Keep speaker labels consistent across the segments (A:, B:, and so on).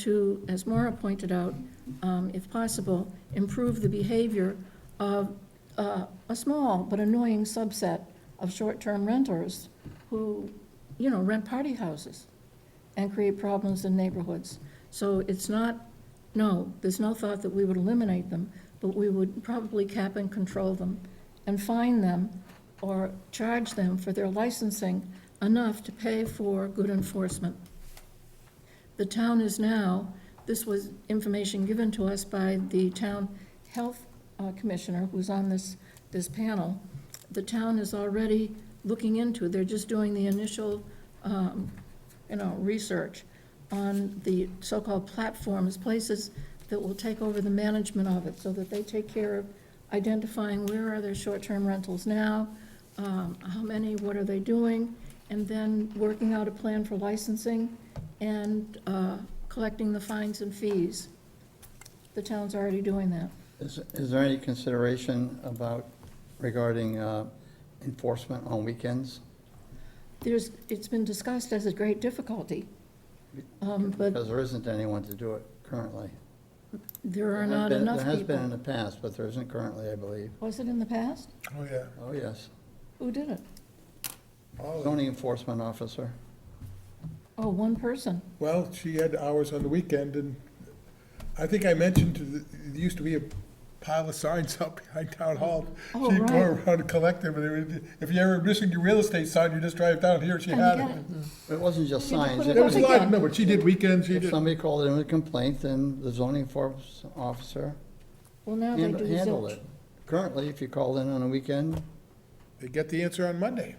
A: to, as Maura pointed out, um, if possible, improve the behavior of uh, a small but annoying subset of short-term renters who, you know, rent party houses and create problems in neighborhoods. So it's not, no, there's no thought that we would eliminate them, but we would probably cap and control them and fine them or charge them for their licensing enough to pay for good enforcement. The town is now, this was information given to us by the town health uh, commissioner who's on this, this panel. The town is already looking into, they're just doing the initial, um, you know, research on the so-called platforms, places that will take over the management of it so that they take care of identifying where are their short-term rentals now, um, how many, what are they doing, and then working out a plan for licensing and uh, collecting the fines and fees. The town's already doing that.
B: Is, is there any consideration about regarding uh, enforcement on weekends?
A: There's, it's been discussed as a great difficulty, um, but
B: Because there isn't anyone to do it currently.
A: there are
B: There has
A: not
B: been-
A: enough
B: There has been in
A: people.
B: the past, but there isn't currently, I believe.
A: Was it in the past?
C: Oh, yeah.
B: Oh, yes.
A: Who did it?
C: All of them.
B: Zoning enforcement officer.
A: Oh, one person.
C: Well, she had hours on the weekend, and I think I mentioned, to the- there used to be a pile of signs out behind Town Hall.
A: Oh,
C: She'd go
A: right.
C: around and collect them, and they would- if you ever missing your real estate sign, you just drive down here, she
A: And
C: had
A: get
C: it.
A: it.
B: It wasn't just
A: You can
B: signs.
A: put it
C: There was a
A: up
C: lot,
A: again.
C: no, but she did weekends, she
B: If
C: did,
B: somebody called in with a complaint, then the zoning enforcement officer
A: Well, now they
B: hand-
A: do
B: handled
A: zilch.
B: it. Currently, if you call in on a weekend,
C: they get the answer on Monday.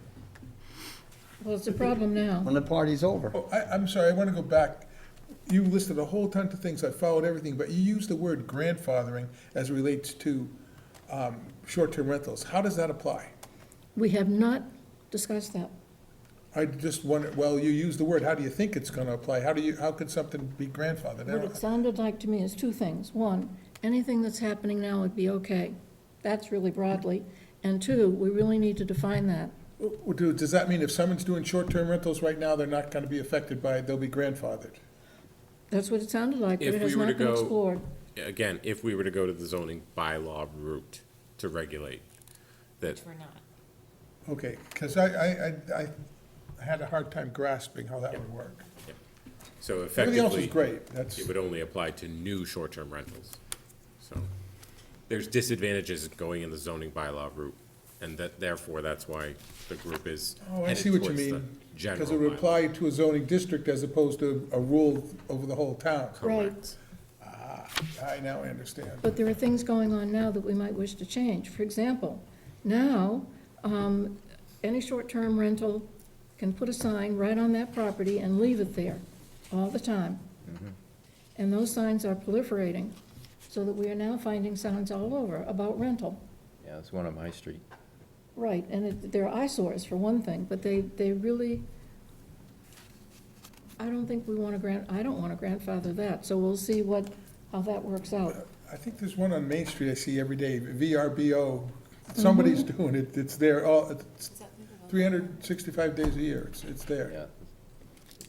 A: Well, it's a problem now.
B: when the party's over.
C: Oh, I, I'm sorry, I want to go back. You listed a whole ton of things, I followed everything, but you used the word grandfathering as it relates to um, short-term rentals. How does that apply?
A: We have not discussed that.
C: I just wonder, well, you use the word, how do you think it's gonna apply? How do you, how could something be grandfathered? I
A: What it
C: don't-
A: sounded like to me is two things. One, anything that's happening now would be okay. That's really broadly. And two, we really need to define that.
C: Well, do- Does that mean if someone's doing short-term rentals right now, they're not gonna be affected by, it, they'll be grandfathered?
A: That's what it sounded like, but
D: If
A: it has
D: we were to
A: not been
D: go-
A: explored.
D: again, if we were to go to the zoning bylaw route to regulate, that,
E: We're not.
C: Okay, because I, I, I, I had a hard time grasping how that would work.
D: so
C: Everything else is
D: effectively,
C: great, that's,
D: it would only apply to new short-term rentals. So there's disadvantages in going in the zoning bylaw route, and that, therefore, that's why the group is
C: oh, I
D: headed
C: see what you
D: towards the
C: mean.
D: General
C: Because it would
D: bylaw.
C: apply to a zoning district as opposed to a rule over the whole town.
A: Right.
C: I now understand.
A: But there are things going on now that we might wish to change. For example, now, um, any short-term rental can put a sign right on that property and leave it there all the time.
D: Mm-hmm.
A: And those signs are proliferating, so that we are now finding signs all over about rental.
F: Yeah, it's one on my street.
A: Right, and it- they're eyesores for one thing, but they, they really, I don't think we want to grant, I don't want to grandfather that, so we'll see what, how that works out.
C: I think there's one on Main Street I see every day, VRBO, somebody's doing it, it's there, all, it's three hundred and sixty-five days a year, it's, it's there.
F: Yeah,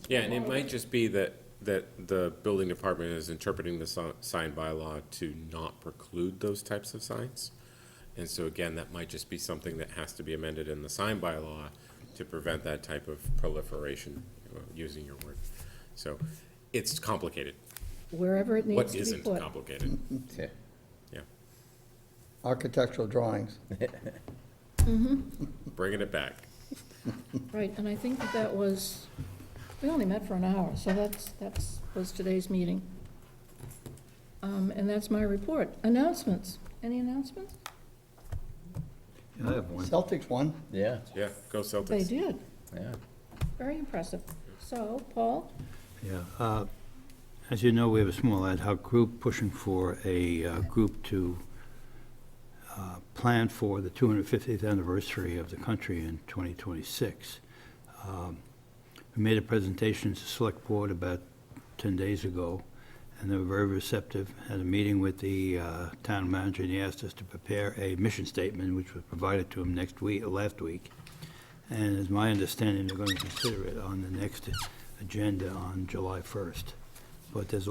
D: Yeah, and it might just be that, that the building department is interpreting the si- sign bylaw to not preclude those types of signs. And so again, that might just be something that has to be amended in the sign bylaw to prevent that type of proliferation, uh, using your word. So it's complicated.
A: Wherever it needs
D: What
A: to be
D: isn't
A: put.
D: complicated?
F: yeah.
D: Yeah,
B: Architectural drawings.
D: bringing it back.
A: Right, and I think that that was, we only met for an hour, so that's, that's, was today's meeting. Um, and that's my report. Announcements, any announcements?
G: I have one.
B: Celtics won.
F: Yeah,
D: Yeah, go Celtics.
A: They did,
F: yeah.
A: very impressive. So, Paul,
G: Yeah. uh, As you know, we have a small ad hoc group pushing for a uh, group to uh, plan for the 250th anniversary of the country in 2026. Um, We made a presentation to Select Board about 10 days ago, and they were very receptive. Had a meeting with the uh, town manager, and he asked us to prepare a mission statement, which was provided to him next week, last week. And it's my understanding, they're going to consider it on the next agenda on July 1st. But there's